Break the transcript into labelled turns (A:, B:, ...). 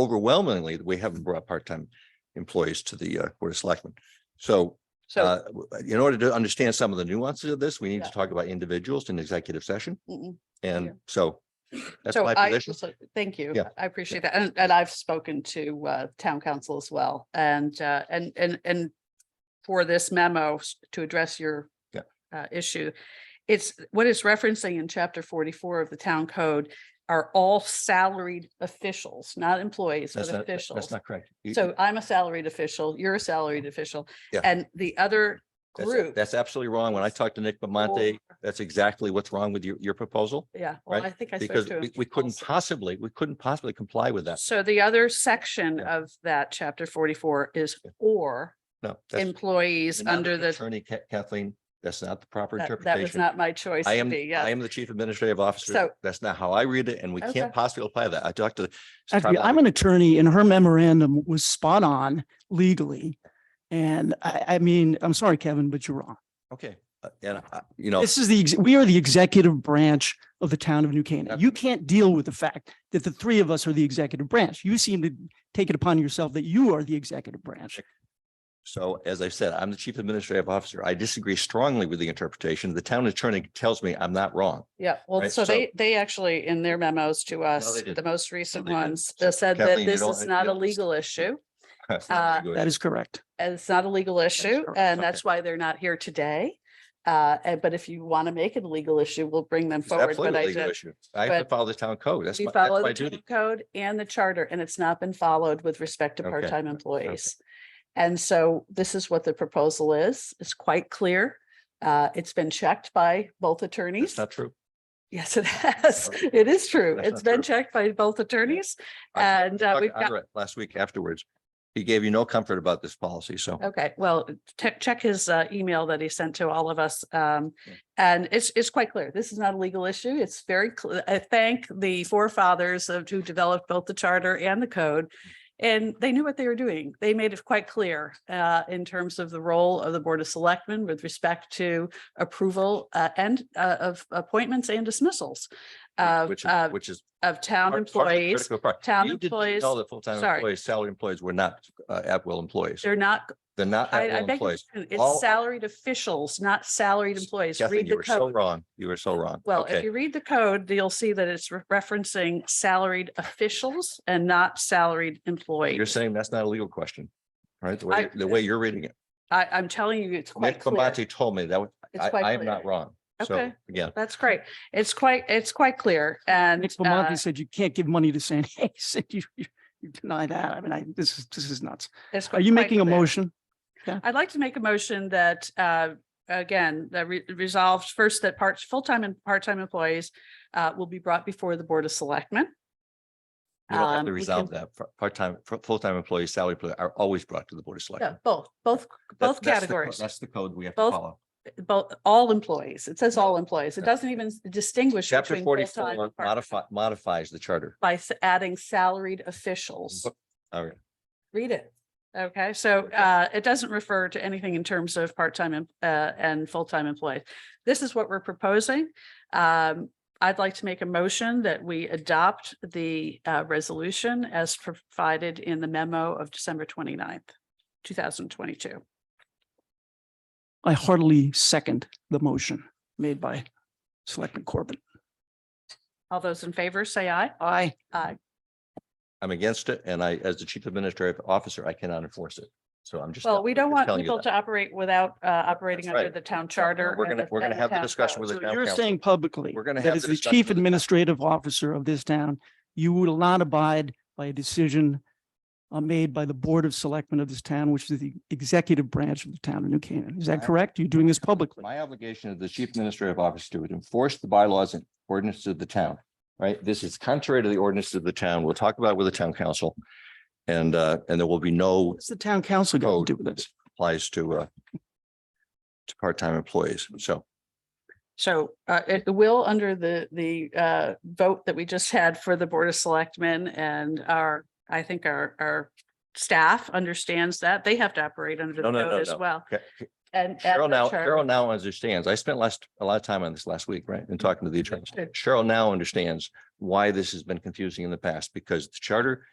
A: overwhelmingly, we haven't brought part-time employees to the uh, Board of Selectmen. So
B: So,
A: uh, w- in order to understand some of the nuances of this, we need to
B: Yeah.
A: talk about individuals in executive session.
B: mm, Yeah.
A: And so that's
B: so
A: my
B: I,
A: position.
B: so thank you.
A: Yeah.
B: I appreciate that. And, and I've spoken to, uh, town council as well. And, uh, and, and, and for this memo s- to address your
A: Yeah.
B: uh, issue, it's what it's referencing in chapter forty-four of the town code are all salaried officials, not employees, but
A: That's not, that's
B: officials.
A: not correct. You- Uh-huh.
B: So I'm a salaried official, you're a salaried official.
A: Yeah.
B: And the other
A: that's-
B: group.
A: That's absolutely wrong. When I talked to Nick Bamonte, that's exactly what's wrong with your, your proposal.
B: Yeah, well,
A: right?
B: I think I spoke
A: Because
B: to.
A: we,
B: him
A: we couldn't
B: also.
A: possibly, we couldn't possibly comply with that.
B: So the other section
A: Yeah.
B: of that chapter forty-four is
A: Yeah.
B: or
A: No. that's-
B: employees
A: you're not
B: under the,
A: Attorney Ka- Kathleen, that's not the proper
B: that that was
A: interpretation.
B: not my choice
A: I
B: to
A: am, I
B: be, yeah.
A: am the chief administrative officer.
B: So-
A: That's not how I read it and we
B: Okay.
A: can't possibly apply that. I talked to.
C: I have to be- I'm an attorney and her memorandum was spot on legally. And I, I mean, I'm sorry, Kevin, but you're wrong.
A: Okay, uh, and I- you know,
C: This is the, ex- we are the executive branch of the town of New Canaan. You can't deal with the fact that the three of us are the executive branch. You seem to take it upon yourself that you are the executive branch.
A: so as I said, I'm the chief administrative officer. I disagree strongly with the interpretation. The town attorney tells me I'm not wrong.
B: Yeah, well,
A: Right,
B: so
A: so-
B: they, they actually, in their memos to us, the
A: didn't.
B: most recent
A: they didn't.
B: ones, they said that
A: Kathleen, you
B: this
A: don't-
B: is not
A: yeah.
B: a legal issue.
A: That's not
B: Uh,
A: very good.
C: That is correct.
B: And it's not a legal issue,
C: correct.
B: and
A: Okay.
B: that's why they're not here today. Uh, and- but if you want to make it a legal issue, we'll bring them
A: It's
B: forward, but
A: absolutely a
B: I
A: legal
B: did.
A: issue. I have to
B: but
A: follow the town code. That's
B: We
A: my, that's
B: follow
A: my
B: the town
A: duty.
B: code and the charter, and it's not been followed with respect to
A: Okay,
B: part-time employees. And so this is what the proposal is. It's quite clear. Uh, it's been checked by both
A: That's
B: attorneys.
A: not true.
B: Yes, it has.
A: Okay.
B: It is true.
A: That's
B: It's
A: not
B: been
A: true.
B: checked by both attorneys.
A: I
B: And uh,
A: talked
B: we've
A: to
B: got,
A: Ira Last week afterwards, he gave you no comfort about this policy, so.
B: okay, well, check, check his uh, email that he sent to all of us. Um,
A: Yeah.
B: and it's, it's quite clear. This is not a legal issue. It's very, cl- I thank the forefathers of who developed both the charter and the code. And they knew what they were doing. They made it quite clear uh, in terms of the role of the Board of Selectmen with respect to approval uh, and uh, of appointments and dismissals of,
A: Which, is-
B: of,
A: which is.
B: of town
A: part- part of the
B: employees.
A: critical part.
B: town
A: You didn't
B: employees-
A: Tell the full-time
B: sorry.
A: employees, salary employees were not uh, at-will employees.
B: They're not,
A: They're not
B: I, I
A: at-will
B: beg your
A: employees.
B: pardon,
A: All-
B: it's salaried officials, not salaried employees.
A: Kathleen,
B: Read
A: you
B: the
A: were so
B: code.
A: wrong. You were so wrong.
B: Well,
A: Okay.
B: if you read the code, you'll see that it's re- referencing salaried officials and not salaried
A: You're
B: employees.
A: saying that's not a legal question, right? The way,
B: I-
A: the way you're reading it.
B: I, I'm telling you, it's quite
A: Nick
B: clear.
A: Combati told me that, was-
B: It's
A: I,
B: quite
A: I am
B: clear.
A: not wrong. So
B: Okay.
A: again,
B: That's great. It's quite, it's quite clear and.
C: Nick
B: uh,
C: Bamonte said you can't give money to San Hayes. You, you you deny that. I mean, I, this is, this is nuts.
B: it's
C: Are
B: quite-
C: you
B: quite
C: making a
B: clear.
C: motion?
B: I'd like to make a motion that, uh, again, that re- resolves first that parts, full-time and part-time employees uh, will be brought before the Board of Selectmen.
A: you don't have
B: Um,
A: to
B: we
A: resolve
B: can-
A: that. Fu- Part-time, fu- full-time employees, salary employees are always brought to the Board of
B: Yeah,
A: Selectmen.
B: both, both,
A: That-
B: both
A: that's the co-
B: categories.
A: That's the code we have to
B: Both-
A: follow.
B: both, all employees. It says all employees. It
A: Yeah.
B: doesn't even s- distinguish
A: Chapter
B: between full-time
A: forty-four
B: and
A: modify,
B: part-time
A: modifies the charter.
B: by s- adding salaried officials.
A: All right.
B: Read it. Okay, so uh, it doesn't refer to anything in terms of part-time em- uh, and full-time employees. This is what we're proposing. Um, I'd like to make a motion that we adopt the uh, resolution as provided in the memo of December 29th, thousand twenty-two.
C: I heartily second the motion made by Selectman Corbin.
B: All those in favor, say aye.
C: Aye.
A: I'm against it and I, as the chief administrative officer, I cannot enforce it. So I'm just.
B: Well, we don't
A: just
B: want
A: telling you
B: people
A: that.
B: to operate without uh, operating
A: That's
B: under
A: right.
B: the town charter.
A: We're
B: and
A: gonna- we're gonna
B: and
A: have the
B: town
A: discussion
B: code.
A: with
C: So
A: town
C: you're
A: council.
C: saying publicly
A: We're gonna
C: that
A: have
C: as
A: the
C: the
A: discussion with
C: chief
A: the town.
C: administrative officer of this town, you will not abide by a decision uh, made by the Board of Selectmen of this town, which is the executive branch of the town of New Canaan. Is that
A: I-
C: correct? You're doing this publicly?
A: My obligation as the chief administrative officer to enforce the bylaws and ordinances of the town, right? This is contrary to the ordinances of the town. We'll talk about it with the town council. And, uh, and there will be no
C: What's the town council going
A: Code.
C: to do with this?
A: applies to, uh, to part-time employees. So
B: So uh, it will under the, the uh, vote that we just had for the Board of Selectmen and our, I think our, our staff understands that. They have to operate under
A: No,
B: the
A: no, no,
B: code as
A: no.
B: well.
A: Ca- ca-
B: And. and
A: Cheryl
B: the
A: now,
B: charter.
A: Cheryl now understands. I spent last, a lot of time on this last week, right? And talking to the attorney. Cheryl now understands why this has been confusing in the past because the charter